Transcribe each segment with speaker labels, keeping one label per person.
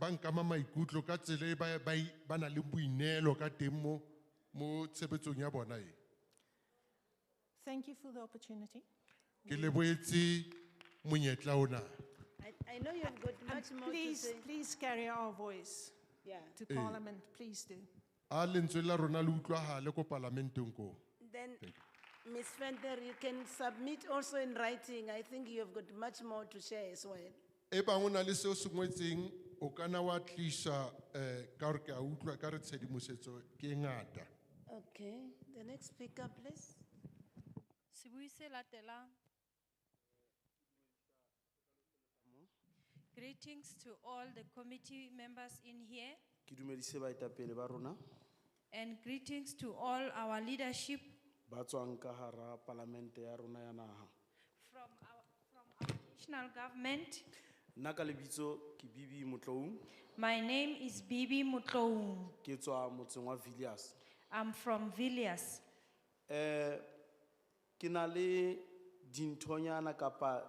Speaker 1: ba nkama maikutlo ka tsela e ba- ba e- ba nang le boineelo ka teng mo- mo tshebetsong ya bona e
Speaker 2: Thank you for the opportunity.
Speaker 1: ke leboetse monyetla ona
Speaker 3: I, I know you've got
Speaker 2: And
Speaker 3: much more to
Speaker 2: please,
Speaker 3: say.
Speaker 2: please carry our voice
Speaker 3: Yeah.
Speaker 2: to Parliament, please do.
Speaker 1: a lentswe la rona le utlwagale ko palamenteng koo
Speaker 3: Then, Ms. Fender, you can submit also in writing. I think you've got much more to share as well.
Speaker 1: e bangwe o na le seo se ngwetseng o kana wa tlisa um ka gore ke a utlwa ka re tshedimosetso ke e ngata
Speaker 3: Okay, the next speaker, please.
Speaker 4: Sibui se latelang. Greetings to all the committee members in here
Speaker 5: Ke dumedise baetapele ba rona
Speaker 4: and greetings to all our leadership
Speaker 5: ba tswang ka hara palamente ya rona ya naha.
Speaker 4: from our, from our national government.
Speaker 5: Nna ka lebitso ke Bibi Motloung,
Speaker 4: My name is Bibi Mutloum.
Speaker 5: ke tswa motseng wa Villiers.
Speaker 4: I'm from Villiers.
Speaker 5: Eh ke na le dinthonyana kapa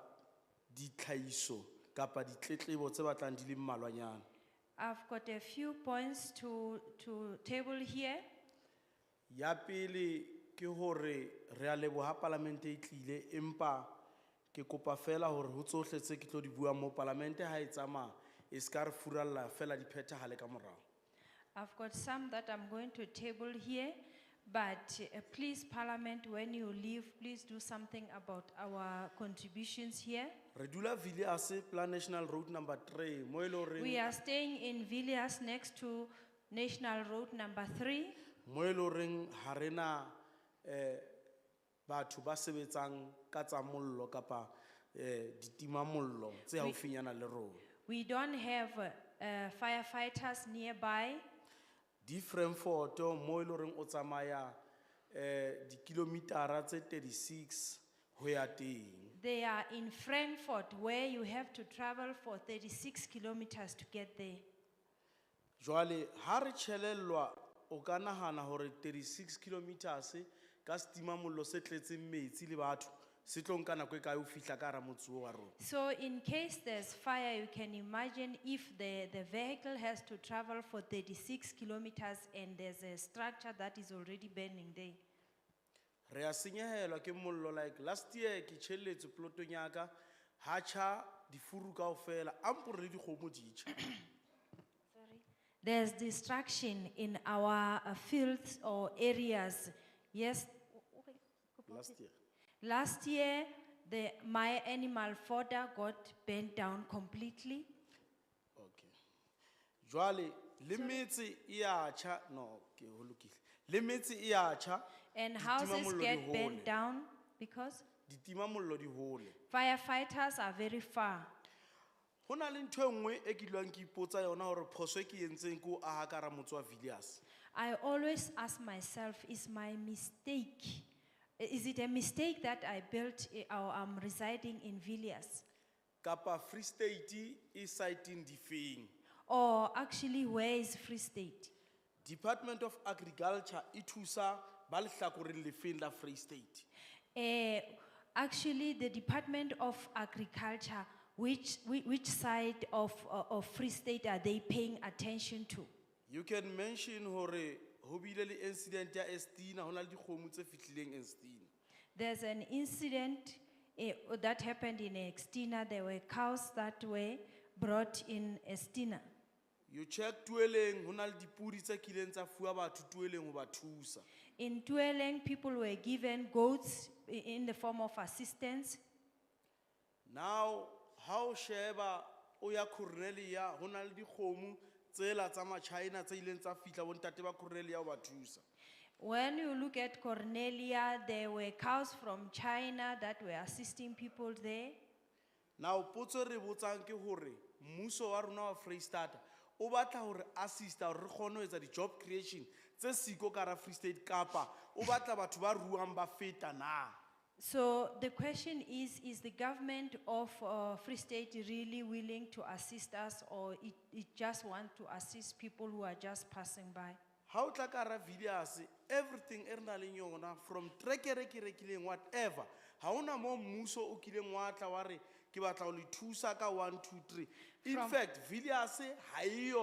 Speaker 5: ditlhahiso kapa ditletlebo tse batlang di le mmalwanyana.
Speaker 4: I've got a few points to, to table here.
Speaker 5: Ya pele ke hore re a leboha palamente e tlile empa ke kopa fela hore ho tsohle tse ke tlo di bua mo palamente ha e tsamaya e ska re furalla fela di phethahale ka morao.
Speaker 4: I've got some that I'm going to table here, but uh, please, Parliament, when you leave, please do something about our contributions here.
Speaker 5: re dula villiers plan national road number three mo e le
Speaker 4: We
Speaker 5: goreng
Speaker 4: are staying in Villiers next to National Road number three.
Speaker 5: mo e le goreng ga rena um batho ba sebetsang ka tsa mollo kapa um ditimamollo tse gaufinyana le rona
Speaker 4: We don't have uh, uh, firefighters nearby.
Speaker 5: di frankforto mo e le goreng o tsamaya um dikilomitara tse 36 go ya teng
Speaker 4: They are in Frankfurt, where you have to travel for 36 kilometers to get there.
Speaker 5: jwale ga re tšhelelelwa o ka nagana gore 36 kilometers ka setimamollo se tletseng metsi le batho se tlo nka nako e kae o fitlha ka gara motse o wa rona
Speaker 4: So in case there's fire, you can imagine if the, the vehicle has to travel for 36 kilometers and there's a structure that is already burning there.
Speaker 5: re a senyegelwa ke mollo like last year ke tšheletse polotong yaka ha tjha difuru kao fela ampore le dikgomo ditšha
Speaker 4: There's destruction in our uh, fields or areas. Yes,
Speaker 5: last year
Speaker 4: last year, the, my animal fodder got burnt down completely.
Speaker 5: okay jwale le metse e a tjha no ke ho lokile le metse e a tjha
Speaker 4: And
Speaker 5: ditima
Speaker 4: houses
Speaker 5: mollo di
Speaker 4: get burnt
Speaker 5: hole.
Speaker 4: down because
Speaker 5: ditimamollo di hole
Speaker 4: firefighters are very far.
Speaker 5: go na le ntho e nngwe e ke dilwang ke ipotsa yona gore phoso e ke entseng ke o aga ka ra motse wa villiers
Speaker 4: I always ask myself, is my mistake, is it a mistake that I built eh, or I'm residing in Villiers?
Speaker 5: kapa free state e siteng difeng
Speaker 4: Or actually, where is Free State?
Speaker 5: department of agriculture e thusa ba lehlakoreng lefeng la free state
Speaker 4: Eh, actually, the Department of Agriculture, which, whi- which side of, uh, of Free State are they paying attention to?
Speaker 5: you can mention hore ho bile le incident ya estina ho na le dikgomo tse fihlileng estina
Speaker 4: There's an incident eh, that happened in Estina. There were cows that were brought in Estina.
Speaker 5: you check tueleng ho na le dipudi tse kileng tsa fuwa batho tueleng ho ba thusa
Speaker 4: In Tueleng, people were given goats i- in the form of assistance.
Speaker 5: now ha o sheba o ya cornelia ho na le dikgomo tsela tsa machina tse ileng tsa fihla bontate ba cornelia ho ba thusa
Speaker 4: When you look at Cornelia, there were cows from China that were assisting people there.
Speaker 5: now potso e re botsang ke hore mmuso wa rona wa freestata o batla hore assista hore re kgone ho etsa di-job creation tse siko ka ra free state kapa o batla batho ba ruang ba feta na
Speaker 4: So the question is is the government of uh, Free State really willing to assist us, or it, it just wants to assist people who are just passing by?
Speaker 5: ha o tla ka ra villiers everything e re nang leng e yona from trekere ke rekileng whatever ha ona moo mmuso o kileng wa tla wa re ke batla go le thusa ka one two three in
Speaker 4: From-
Speaker 5: fact villiers e ga eyo